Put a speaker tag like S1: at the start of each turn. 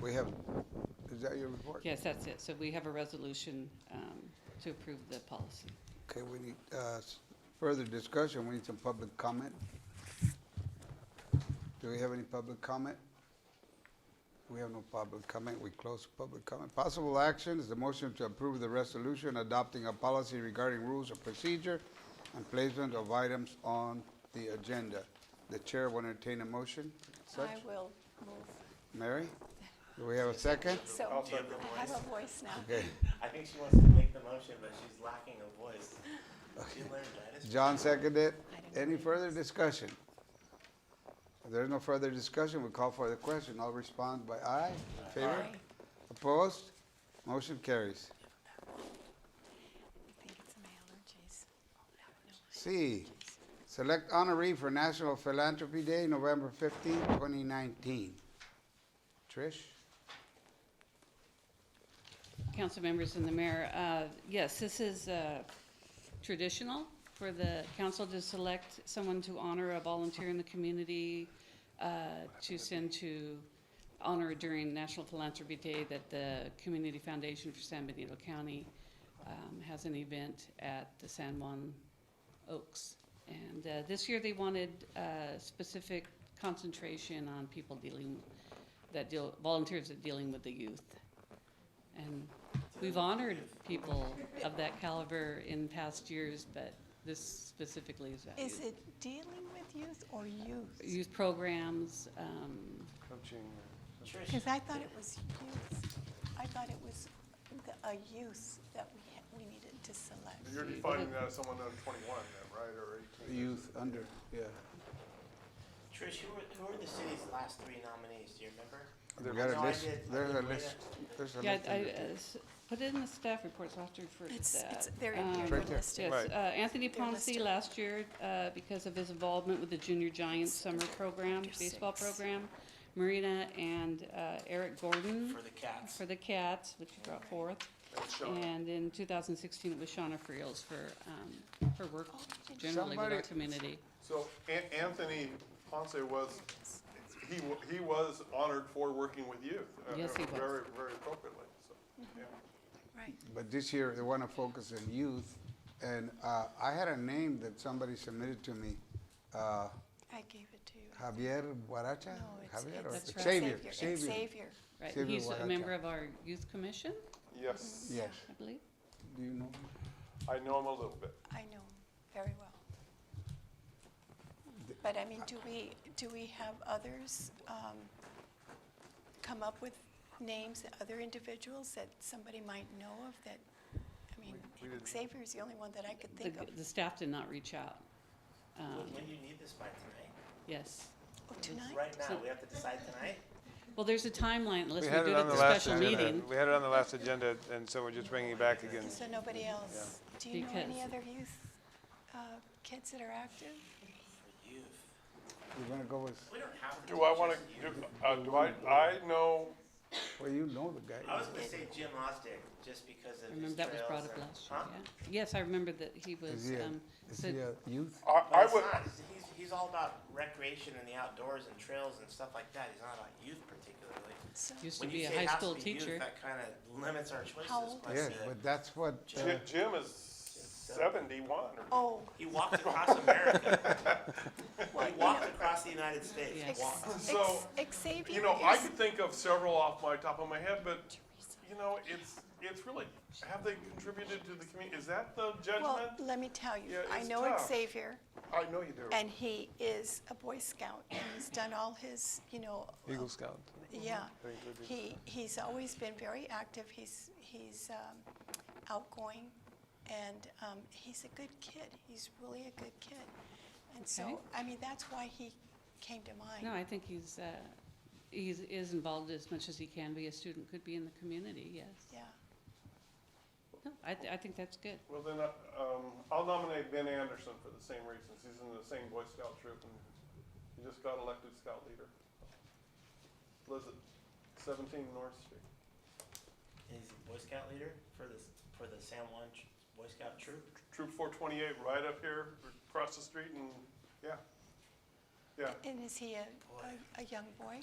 S1: We have, is that your report?
S2: Yes, that's it. So we have a resolution um, to approve the policy.
S1: Okay, we need, uh, s- further discussion, we need some public comment. Do we have any public comment? We have no public comment, we close public comment. Possible action is the motion to approve the resolution adopting a policy regarding rules of procedure and placement of items on the agenda. The chair will entertain a motion. Such,
S3: I will move.
S1: Mary? Do we have a second?
S3: So
S4: I'll take the
S3: I have a voice now.
S1: Okay,
S4: I think she wants to make the motion, but she's lacking a voice. She learned that. It's-
S1: John seconded.
S3: I don't know
S1: Any
S3: what it
S1: further discussion? If there's no further discussion, we call for the question. I'll respond by aye. In Favor?
S3: Aye.
S1: Opposed? Motion carries.
S3: I think it's my allergies. I don't know.
S1: C, select honoree for National Philanthropy Day, November 15, 2019. Trish?
S2: Council members and the mayor, uh, yes, this is uh, traditional for the council to select someone to honor a volunteer in the community, uh, to send to honor during National Philanthropy Day that the Community Foundation for San Benito County um, has an event at the San Juan Oaks. And uh, this year, they wanted uh, specific concentration on people dealing, that deal, volunteers that dealing with the youth. And we've honored people of that caliber in past years, but this specifically is about
S3: Is
S2: youth.
S3: it dealing with youth or youth?
S2: Youth programs, um,
S4: Trish,
S3: Because I thought it was youth. I thought it was the- a youth that we, had- we needed to select.
S5: You're defining that as someone under twenty-one then, right, or eighteen?
S1: Youth under, yeah.
S4: Trish, who were, who were the city's last three nominees? Do you remember?
S1: We got a
S4: No, I
S1: list,
S4: did- I
S1: there's a
S4: did way
S1: list, there's a
S2: yeah,
S1: list.
S2: I,
S1: under-
S2: uh, s- put it in the staff report, so I'll have to refer to
S3: It's, it's,
S2: that.
S3: they're,
S2: Um,
S3: they're
S1: Right there.
S3: listed.
S2: Yes,
S5: Right.
S2: uh, Anthony
S3: They're
S2: Ponce
S3: listed.
S2: last year, uh, because of his involvement with the Junior Giants Summer Program,
S3: Under
S2: baseball
S3: six.
S2: program, Marina and uh, Eric Gordon
S4: For the cats.
S2: for the Cats, which you brought forth.
S5: That's Shauna.
S2: And in 2016, it was Shauna Friels for, um, her work generally with our
S5: Somebody-
S2: community.
S5: So An- Anthony Ponce was, he, wa- he was honored for working with youth. uh,
S2: Yes, he was.
S5: Very, very appropriately, so, yeah.
S3: Right.
S1: But this year, they want to focus on youth. And uh, I had a name that somebody submitted to me. uh,
S3: I gave it to you.
S1: Javier Guaracha?
S3: No, it's-
S1: Javier
S3: it's-
S1: or
S2: That's right.
S1: Xavier?
S3: It's
S1: Xavier.
S3: Xavier.
S2: Right,
S1: Xavier
S2: he's a member
S1: Huaracha.
S2: of our youth commission,
S5: Yes,
S1: Yes.
S2: I believe.
S1: Do you know?
S5: I know him a little bit.
S3: I know him very well. But I mean, do we, do we have others um, come up with names, other individuals that somebody might know of that, I mean,
S5: We- we didn't-
S3: Xavier's the only one that I could
S2: The,
S3: think of.
S2: the staff did not reach out. Um,
S4: When you need this by tonight?
S2: Yes.
S3: Oh, Tonight?
S4: Right now, we have to decide tonight?
S2: Well, there's a timeline, unless
S6: We
S2: we
S6: had
S2: do it
S6: it on
S2: at
S6: the
S2: the
S6: last
S2: special
S6: agenda.
S2: meeting.
S6: We had it on the last agenda, and so we're just bringing it back again.
S3: So nobody else? Do you know any
S2: Because-
S3: other youth, uh, kids that are active?
S4: For youth.
S1: You're going to go with,
S4: We don't have to.
S5: Do I want
S4: just
S5: to,
S4: youth.
S5: uh, do I, I know,
S1: well, you know the guy.
S4: I was gonna say Jim Ostick, just because of
S2: I remember
S4: his trails.
S2: that was brought up
S4: and-
S2: last year,
S4: Huh?
S2: yeah. Yes, I remember that he
S1: Is
S2: was,
S1: he a,
S2: um,
S1: is
S2: said-
S1: he a youth?
S5: I,
S4: But
S5: I
S4: it's
S5: would,
S4: not. He's- He's, he's all about recreation and the outdoors and trails and stuff like that. He's not about youth particularly.
S3: So,
S2: used to
S4: When
S2: be
S4: you
S2: a
S4: say
S2: high
S4: has
S2: school
S4: to be youth,
S2: teacher.
S4: That kind of limits our choices.
S3: How old
S4: but,
S1: Yes,
S4: uh,
S1: but that's what, uh,
S5: Ji- Jim is seventy-one or
S3: oh,
S4: He walked across America.
S3: well,
S4: He
S3: you know,
S4: walked across the United States.
S2: Yeah.
S3: Ex-
S4: Walked.
S3: ex-
S5: So,
S3: Xavier
S5: You know, I
S3: is-
S5: could think of several off my top of my head, but, you know, it's, it's really, have they contributed to the community? Is that the
S3: Well,
S5: judgment?
S3: let me tell you,
S5: Yeah,
S3: I
S5: it's
S3: know
S5: tough.
S3: Xavier,
S5: I know you do.
S3: and he is a Boy Scout, and he's done all his, you know, uh,
S6: Eagle Scout.
S3: yeah. He, he's always been very active, he's, he's um, outgoing, and um, he's a good kid, he's really a good kid. And so,
S2: Okay.
S3: I mean, that's why he came to
S2: No,
S3: mind.
S2: I think he's, uh, he's, is involved as much as he can be. A student could be in the community, yes.
S3: Yeah,
S2: No, I, th- I think that's good.
S5: Well, then, uh, um, I'll nominate Ben Anderson for the same reasons. He's in the same Boy Scout troop and he just got elected scout leader. Lives at seventeen North Street.
S4: He's a Boy Scout leader for the, for the San Juan Ch- Boy Scout troop.
S5: Troop four twenty-eight, right up here, across the street and, yeah. Yeah,
S3: and is he a,
S4: Boy.
S3: a- a young boy?